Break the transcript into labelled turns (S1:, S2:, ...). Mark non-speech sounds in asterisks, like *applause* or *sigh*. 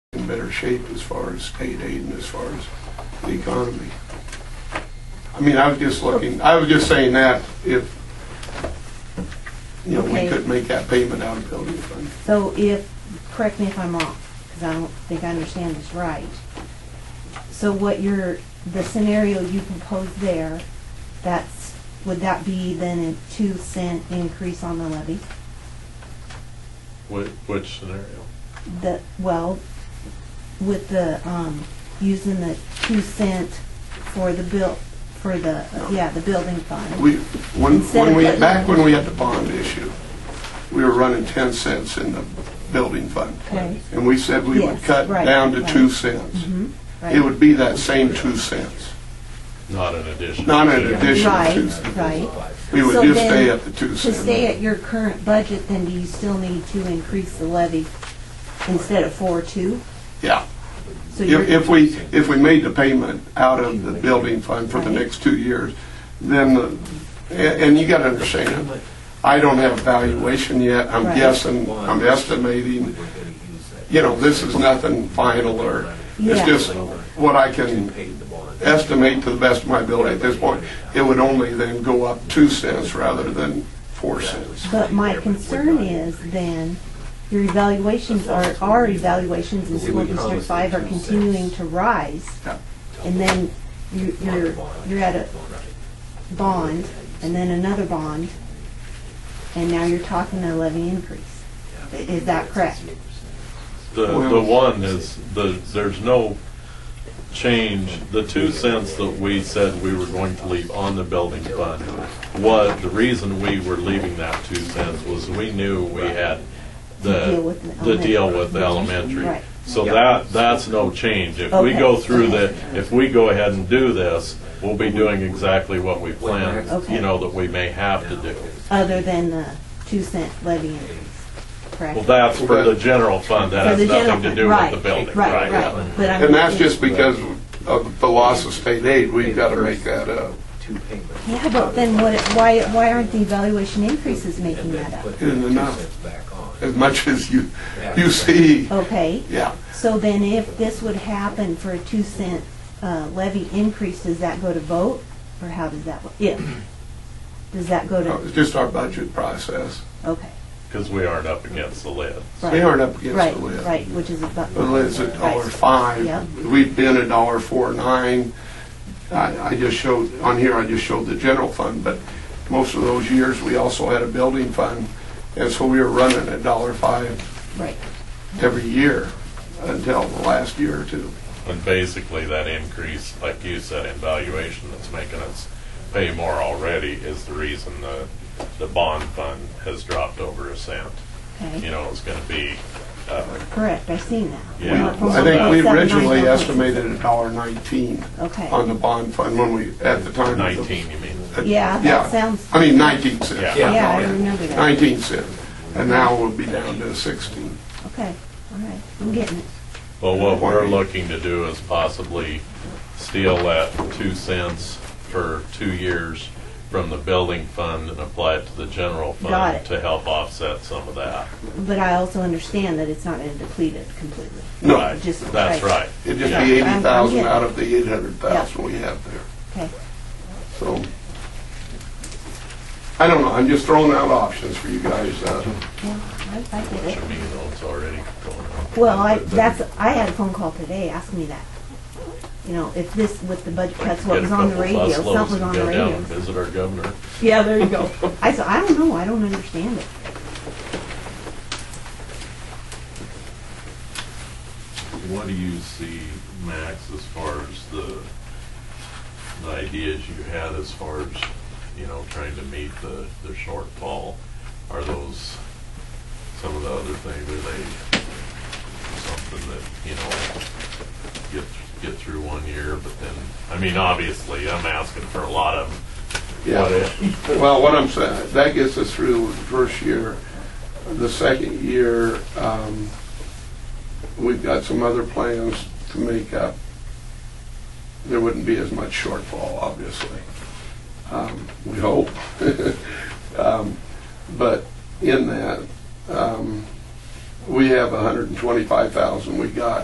S1: in better shape as far as state aid and as far as the economy. I mean, I was just looking, I was just saying that if, you know, we
S2: Okay.
S1: could make that payment out of building fund.
S2: So if, correct me if I'm wrong, because I don't think I understand this right. So what you're, the scenario you proposed there, that's, would that be then a two cent increase on the levy?
S3: Which, which scenario?
S2: The, well, with the, um, using the two cent for the bill, for the, yeah, the building fund.
S1: We, when,
S2: Instead
S1: when
S2: of
S1: we,
S2: putting-
S1: back when we had the bond issue, we were running 10 cents in the building fund.
S2: Okay.
S1: And we said we would
S2: Yes,
S1: cut
S2: right,
S1: down to
S2: right.
S1: 2 cents.
S2: Mhm, right.
S1: It would be that same 2 cents,
S3: Not an addition.
S1: not
S3: to-
S1: an additional 2
S2: Right,
S1: cents.
S2: right.
S1: We
S2: So
S1: would just
S2: then,
S1: stay at the 2
S2: To
S1: cents.
S2: stay at your current budget, then do you still need to increase the levy instead of four, two?
S1: Yeah.
S2: So
S1: If,
S2: you're,
S1: if we, if we made the payment out of the building fund for the
S2: Right.
S1: next two years, then, the- a- and you gotta understand, I don't have a valuation yet, I'm
S2: Right.
S1: guessing, I'm estimating, you know, this is nothing final or, it's
S2: Yeah.
S1: just what I can estimate to the best of my ability at this point. It would only then go up two cents rather than four cents.
S2: but my concern is then, your evaluations are, our evaluations in school district five are continuing to rise.
S1: Yeah.
S2: And then you- you're, you're at a bond, and then another bond, and now you're talking a levy increase. I- Is that correct?
S3: The, the one is, the, there's no change, the two cents that we said we were going to leave on the building fund, what, the reason we were leaving that two cents was we knew we had
S2: To deal
S3: the,
S2: with the
S3: the deal
S2: elementary.
S3: with the elementary.
S2: Right.
S3: So that, that's no change. If we
S2: Okay.
S3: go through the, if we go ahead and do this, we'll be doing exactly what we planned,
S2: Okay.
S3: you know, that we may have to do.
S2: Other than the two cent levy increase, correct?
S3: Well, that's for the general fund, that
S2: For the
S3: has nothing
S2: general
S3: to
S2: fund,
S3: do with
S2: right,
S3: the building.
S2: Right, right, but I'm.
S1: And that's just because of the loss of state aid, we've gotta make that up.
S2: Yeah, but then what, why, why aren't the evaluation increases making that up?
S1: Isn't enough. As much as you, you see,
S2: Okay,
S1: yeah.
S2: so then if this would happen for a two cent uh, levy increase, does that go to vote? Or how does that, work? if, does that go
S1: No,
S2: to,
S1: It's just our budget process.
S2: okay,
S3: Because we aren't up against the lid.
S2: right.
S1: We aren't up against
S2: Right,
S1: the lid.
S2: right, which is about.
S1: The lid's a dollar
S2: Right. Yep.
S1: five. We've been a dollar four nine. I, I just showed, on here, I just showed the general fund, but most of those years, we also had a building fund. And so we were running a dollar five
S2: Right,
S1: every year until the last year or two.
S3: And basically, that increase, like you said, in valuation that's making us pay more already is the reason the, the bond fund has dropped over a cent. You
S2: okay,
S3: know, it's going to be, uh,
S2: correct, I seen that.
S3: Yeah.
S2: From
S1: I think we
S2: 1.79
S1: originally
S2: down to-
S1: estimated a dollar nineteen on
S2: Okay,
S1: the bond fund when we, at the time. of the-
S3: 19, you mean?
S2: yeah,
S1: Yeah.
S2: that sounds,
S1: I mean, nineteen cents.
S3: Yeah.
S2: yeah, I remember that.
S1: 19 cent, and now we'll be down to 16.
S2: Okay, all right, I'm getting it.
S3: Well, what we're looking to do is possibly steal that two cents for two years from the building fund and apply it to the general
S2: Got
S3: fund
S2: it.
S3: to help offset some of that.
S2: But I also understand that it's not going to deplete it completely.
S1: No.
S3: Right.
S2: Just-
S3: That's
S2: right.
S3: right.
S1: It'd just
S3: Yeah.
S1: be 80,000
S2: Yeah.
S1: out of the 800,000 we have there,
S2: Okay,
S1: so. I don't know, I'm just throwing out options for you guys. uh,
S2: yeah, I, I
S3: Which
S2: get it.
S3: I mean, it's already going on.
S2: Well, I, that's, I had a phone call today asking me that. You know, if this, with the budget cuts, what
S3: Get a
S2: was on the
S3: couple
S2: radio,
S3: bus loads
S2: something was
S3: and
S2: on the
S3: Go down
S2: radio.
S3: and visit our governor.
S2: Yeah, there you go. I said, I don't know, I don't understand it.
S3: What do you see, Max, as far as the, the ideas you had as far as, you know, trying to meet the, the shortfall? Are those, some of the other things, are they something that, you know, get, get through one year, but then, I mean, obviously, I'm asking for a lot of what
S1: Yeah.
S3: if.
S1: Well, what I'm saying, that gets us through the first year. The second year, um, we've got some other plans to make up. There wouldn't be as much shortfall, obviously. Um, We hope. *laughs* Um, But in that, um, we have 125,000 we got